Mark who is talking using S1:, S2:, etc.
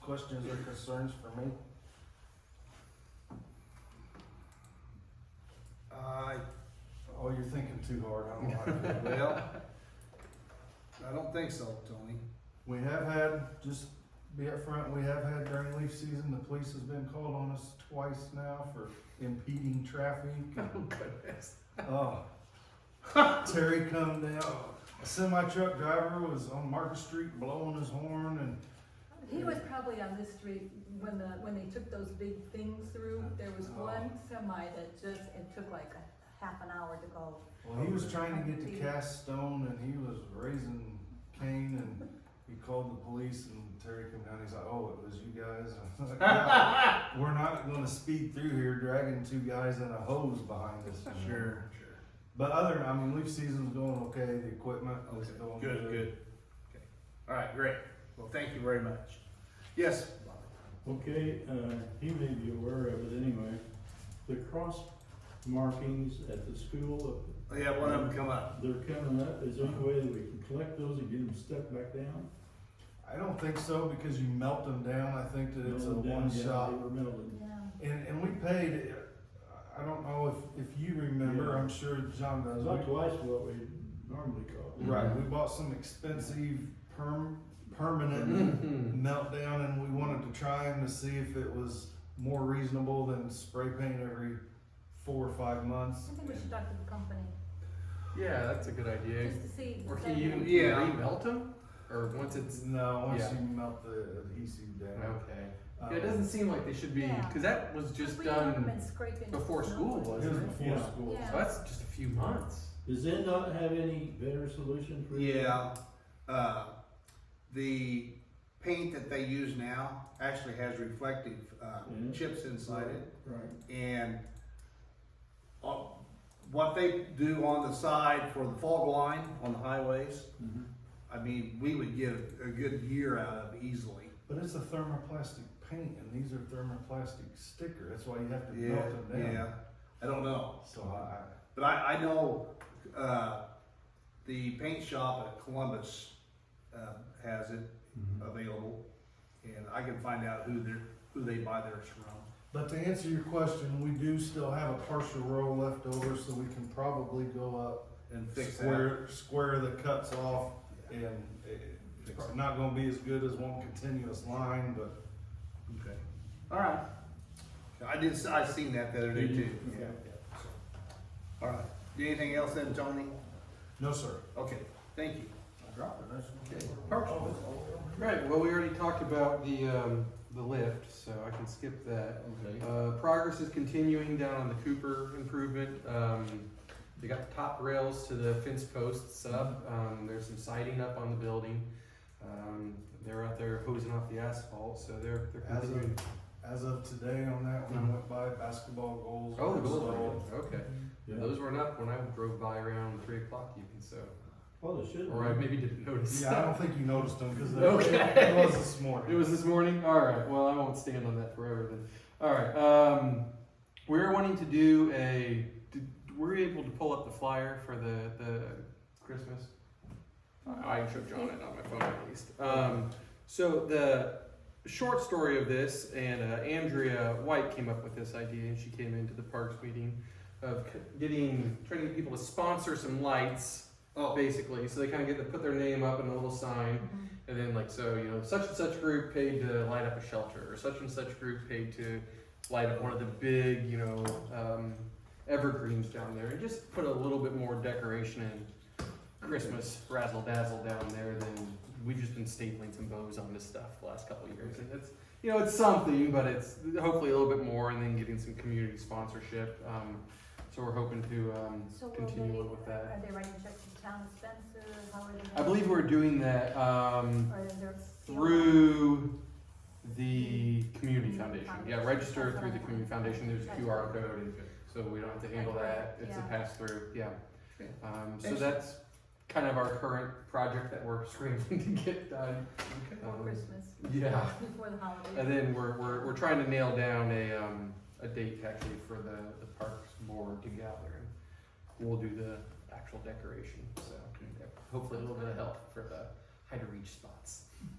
S1: Questions or concerns for me?
S2: I,
S1: Oh, you're thinking too hard, I don't like that.
S2: well, I don't think so, Tony.
S1: We have had, just be upfront, we have had during leaf season, the police has been called on us twice now for impeding traffic.
S2: goodness.
S1: Oh, Terry come down, a semi truck driver was on Market Street blowing his horn and
S3: He was probably on this street when the, when they took those big things through, there was
S4: Oh.
S3: one semi that just, it took like a half an hour to go.
S1: Well, he was trying to get to Cast Stone and he was raising Cain and he called the police and Terry come down. He's like, "Oh, it was you guys." I'm like, "No, We're not going to speed through here dragging two guys and a hose behind us.
S2: Sure, sure.
S1: But other, I mean, leaf season's going okay. The equipment is
S2: Okay,
S1: going
S5: Good, good. Okay. All right, great. Well, thank you very much.
S2: Yes,
S6: Okay, uh, he may be aware of it anyway. The cross markings at the school,
S2: Oh, yeah, one of them come up.
S6: they're coming up. Is there any way that we can collect those and get them stuck back down?
S1: I don't think so because you melt them down. I think that it's a
S6: Melted down,
S1: one
S6: yeah,
S1: shot.
S6: They were melted.
S3: Yeah.
S1: And and we paid. I don't know if if you remember.
S6: Yeah.
S1: I'm sure John
S6: It
S1: does.
S6: was
S1: We-
S6: like twice what we normally caught.
S1: Right, we bought some expensive perm, permanent
S4: Mm-hmm.
S1: meltdown and we wanted to try them to see if it was more reasonable than spray paint every four or five months.
S3: I think we should talk to the company,
S4: Yeah, that's a good idea.
S3: just to see.
S4: Or
S3: if
S4: can
S3: they-
S4: you even
S2: Yeah.
S4: remelt them? Or once it's
S1: No, once
S4: Yeah.
S1: you melt the adhesive down.
S4: okay,
S1: um,
S4: yeah, it doesn't seem like they should be
S3: Yeah.
S4: because that was just
S3: We haven't
S4: done.
S3: been scraping
S4: before
S3: snow
S4: school
S3: and-
S1: It
S4: was.
S1: was before
S6: Yeah.
S1: school.
S3: Yeah.
S4: So that's just a few months.
S6: Does Zen not have any better solution for you?
S2: Yeah, uh, the paint that they use now actually has reflective, uh,
S6: Mhm.
S2: chips inside it.
S6: Right.
S2: and uh, what they do on the side for the fog line on the highways,
S1: Mm-hmm.
S6: Mhm.
S2: I mean, we would get a good year out of easily.
S1: But it's a thermoplastic paint and these are thermoplastic sticker, that's why you have to
S2: Yeah,
S1: melt them
S2: yeah.
S1: down.
S2: I don't know,
S1: So I,
S2: but I, I know uh, the paint shop at Columbus uh, has it
S6: Mm-hmm.
S2: available, and I can find out who they who they buy theirs from.
S1: but to answer your question, we do still have a partial row left over, so we can probably go up
S2: And fix that.
S1: square, square the cuts off and it- it's probably not gonna be as good as one continuous line, but
S2: Okay. All right. I did. s- I seen that the other day
S6: Did you?
S2: too.
S6: Okay.
S2: yeah, so. All right. Anything else then, Tony?
S1: no, sir.
S2: Okay. Thank you.
S1: I dropped it, that's okay.
S2: Parks.
S4: Right. Well, we already talked about the um, the lift, so I can skip that.
S6: Okay.
S4: Uh, progress is continuing down on the Cooper improvement. Um, they got the top rails to the fence posts up. Um, there's some siding up on the building. Um, they're out there hosing off the asphalt, so they're they're
S1: As
S4: continuing.
S1: of, as of today on that, when I went by, basketball goals
S4: Oh, the
S1: were
S4: goals are
S1: installed.
S4: up. okay.
S6: Yeah.
S4: Those weren't up when I drove by around three o'clock even, so
S6: Well, they should.
S4: or I maybe didn't notice.
S1: Yeah, I don't think you noticed them, cause they-
S4: Okay.
S1: it was this
S4: It
S1: morning.
S4: was this morning? All right. Well, I won't stand on that forever then. All right. Um, we're wanting to do a. Did, were you able to pull up the flyer for the, the Christmas? I I should John it on my phone at least. Um, so the short story of this, and uh, Andrea White came up with this idea, and she came into the parks meeting of c- getting trying to get people to sponsor some lights,
S2: Oh,
S4: basically. So they kind of get to put their name up in a little sign.
S3: Mhm.
S4: And then like so, you know, such and such group paid to light up a shelter, or such and such group paid to light up one of the big, you know, um, evergreens down there, and just put a little bit more decoration and Christmas razzle dazzle down there than we've just been stapling some bows on this stuff the last couple of years, and it's you know it's something, but it's hopefully a little bit more, and then getting some community sponsorship. Um, so we're hoping to um,
S3: So will
S4: continue
S3: they,
S4: with that.
S3: are they writing checks to town of Spencer, how are they?
S4: I believe we're doing that. Um,
S3: Or is there?
S4: through the community foundation. Yeah, register through the community foundation. There's a QR code, and so we don't have to handle that. It's a pass through. Yeah. Um, so that's kind of our current project that we're scrambling to get done. Um,
S3: For Christmas,
S4: Yeah.
S3: before the holidays.
S4: And then we're, we're, we're trying to nail down a, um, a date actually for the, the parks board to gather. and We'll do the actual decoration, so yeah, hopefully a little bit of help for the high to reach spots.